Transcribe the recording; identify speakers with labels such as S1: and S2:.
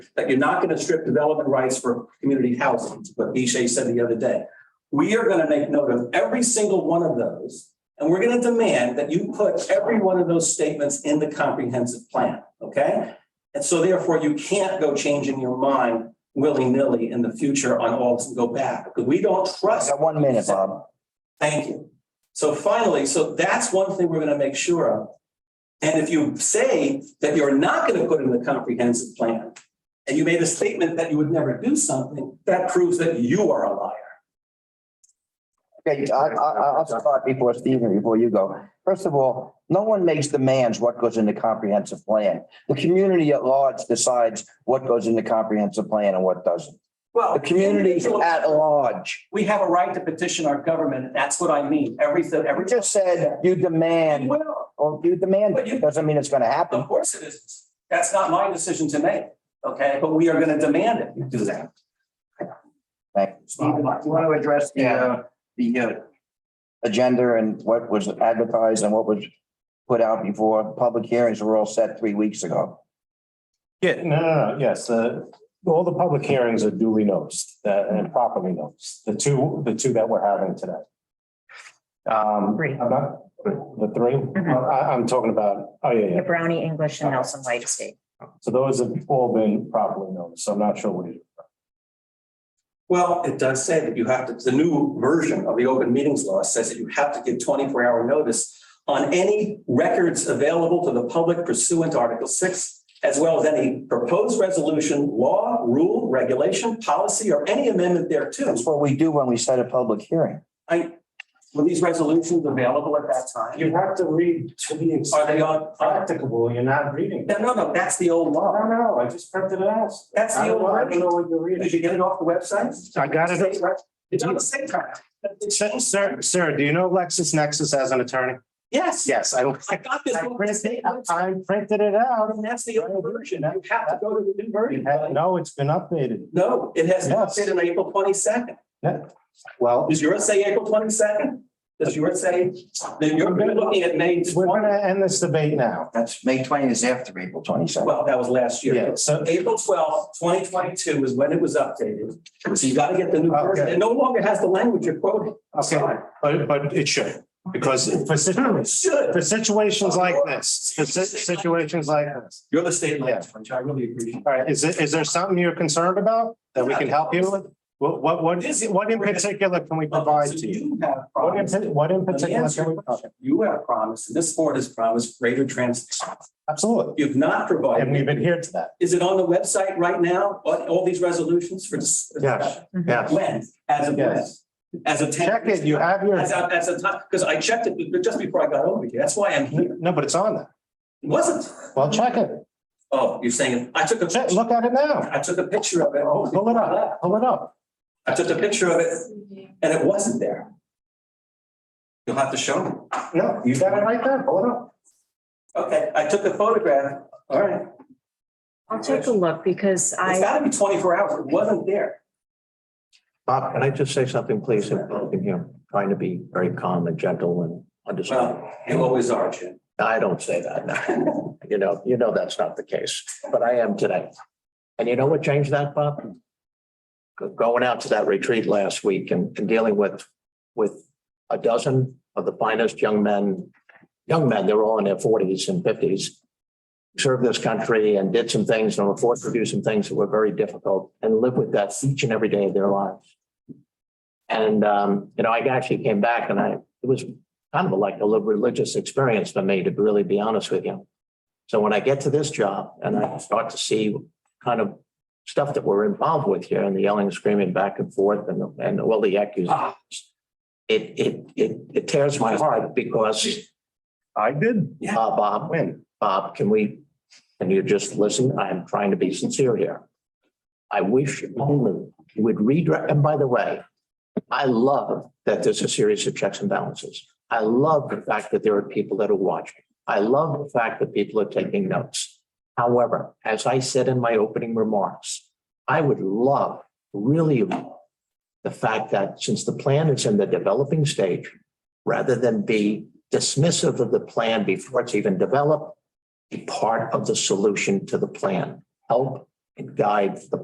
S1: that you're not going to strip development rights for community housing, but Bishay said the other day. We are going to make note of every single one of those, and we're going to demand that you put every one of those statements in the comprehensive plan, okay? And so therefore, you can't go changing your mind willy-nilly in the future on all this and go back, because we don't
S2: I
S1: trust
S2: got one minute, Bob.
S1: Thank you. So finally, so that's one thing we're gonna make sure of. And if you say that you're not gonna put in the comprehensive plan, and you made a statement that you would never do something, that proves that you are a liar.
S2: Okay, I, I, I- I'll start before Stephen, before you go. First of all, no one makes demands what goes in the comprehensive plan. The community at large decides what goes in the comprehensive plan and what doesn't.
S1: Well.
S2: The community at large.
S1: We have a right to petition our government, and that's what I mean, every, every.
S2: You just said you demand,
S1: Well,
S2: well, you demand,
S1: But you-
S2: doesn't mean it's gonna happen.
S1: of course it is. That's not my decision to make, okay? But we are gonna demand it, you do that.
S2: Thank you. Stephen, do you want to address the, uh, the uh, agenda and what was advertised and what was put out before? Public hearings were all set three weeks ago.
S3: Yeah, no, no, no, yes, the, all the public hearings are duly noticed uh, and properly noticed, the two, the two that we're having today. Um,
S4: Three.
S3: I'm not- the three, Uh,
S4: Mhm.
S3: I, I'm talking about, oh, yeah,
S4: The
S3: Mm-hmm. yeah,
S4: Brownie English and Nelson White Estate.
S3: so those have all been properly noticed, so I'm not sure what it is.
S1: Well, it does say that you have to, the new version of the open meetings law says that you have to give twenty-four hour notice on any records available to the public pursuant to Article six, as well as any proposed resolution, law, rule, regulation, policy, or any amendment thereto.
S2: That's what we do when we set a public hearing.
S1: I, were these resolutions available at that time?
S3: have to read to be
S1: Are they on, are-
S3: practicable, you're not reading.
S1: no, no, no, that's the old law.
S3: know, I just printed it out.
S1: That's the old law.
S3: what you're
S1: Did you get it off the website?
S3: I got it.
S1: It's on the state track.
S3: Sir, sir, do you know Lexis Nexis as an attorney?
S1: Yes.
S3: Yes, I.
S1: I got this.
S3: I
S1: off the
S3: printed,
S1: state website.
S3: I printed it out.
S1: And that's the old version. You have to go to the new
S3: You
S1: version.
S3: had- No, it's been updated.
S1: No, it has not
S3: Yes.
S1: been on April twenty-second.
S3: Well,
S1: Does yours say April twenty-second? Does yours say, then you're gonna be looking at May
S3: we're gonna
S1: twenty?
S3: end this debate now.
S2: That's May twentieth is after April twenty second.
S1: Well, that was last year.
S3: Yeah, so,
S1: April twelfth, twenty twenty-two is when it was updated. So you gotta get the new version.
S3: Okay.
S1: It no longer has the language you're quoting.
S3: okay, but, but it should, because for
S1: It
S3: situations,
S1: should.
S3: for situations like this, for si- situations like this.
S1: You're the state
S3: Yeah.
S1: language, which I really appreciate.
S3: All right, is it, is there something you're concerned about that we can help you with? What, what, what is, what in particular can we provide
S1: So
S3: to you?
S1: you have
S3: What in,
S1: promised,
S3: pa- what in
S1: Let me
S3: particular
S1: answer
S3: can we?
S1: your question. you have promised, and this board has promised greater transparency.
S3: Absolutely,
S1: You've not provided.
S3: and we've adhered to that.
S1: Is it on the website right now, all, all these resolutions for? dis-
S3: Yes, Yes,
S1: When, as of when?
S3: Yes.
S1: As of ten?
S3: check it, you have your,
S1: As, a- as a time, because I checked it just before I got over here, that's why I'm here.
S3: no, but it's on there.
S1: It wasn't,
S3: Well, check it.
S1: oh, you're saying, I took a,
S3: Check,
S1: picture.
S3: look at it now.
S1: I took a picture of it, oh,
S3: Pull it up, pull it up.
S1: I took a picture of it, and it wasn't there. You'll have to show me.
S3: No, you got it right there, pull it up.
S1: Okay, I took a photograph, all right,
S4: I'll take a look because
S1: it's
S4: I,
S1: gotta be twenty-four hours, it wasn't there.
S5: Bob, can I just say something, please? And I'm, you know, trying to be very calm and gentle and understanding.
S1: Well, you always are, Jim.
S5: I don't say that now. You know, you know that's not the case, but I am today. And you know what changed that, Bob? Go- Going out to that retreat last week and, and dealing with, with a dozen of the finest young men, young men, they're all in their forties and fifties, served this country and did some things and were forced to do some things that were very difficult and live with that each and every day of their lives. And, um, you know, I actually came back and I, it was kind of like a little religious experience for me, to really be honest with you. So when I get to this job and I start to see kind of stuff that we're involved with here and the yelling and screaming back and forth and, and all the accusations, it, it, it, it tears my heart because,
S3: I did.
S5: uh, Bob,
S3: When?
S5: Bob, can we, can you just listen? I'm trying to be sincere here. I wish only you would redirect, and by the way, I love that there's a series of checks and balances. I love the fact that there are people that are watching. I love the fact that people are taking notes. However, as I said in my opening remarks, I would love, really love, the fact that since the plan is in the developing stage, rather than be dismissive of the plan before it's even developed, be part of the solution to the plan. Help guide the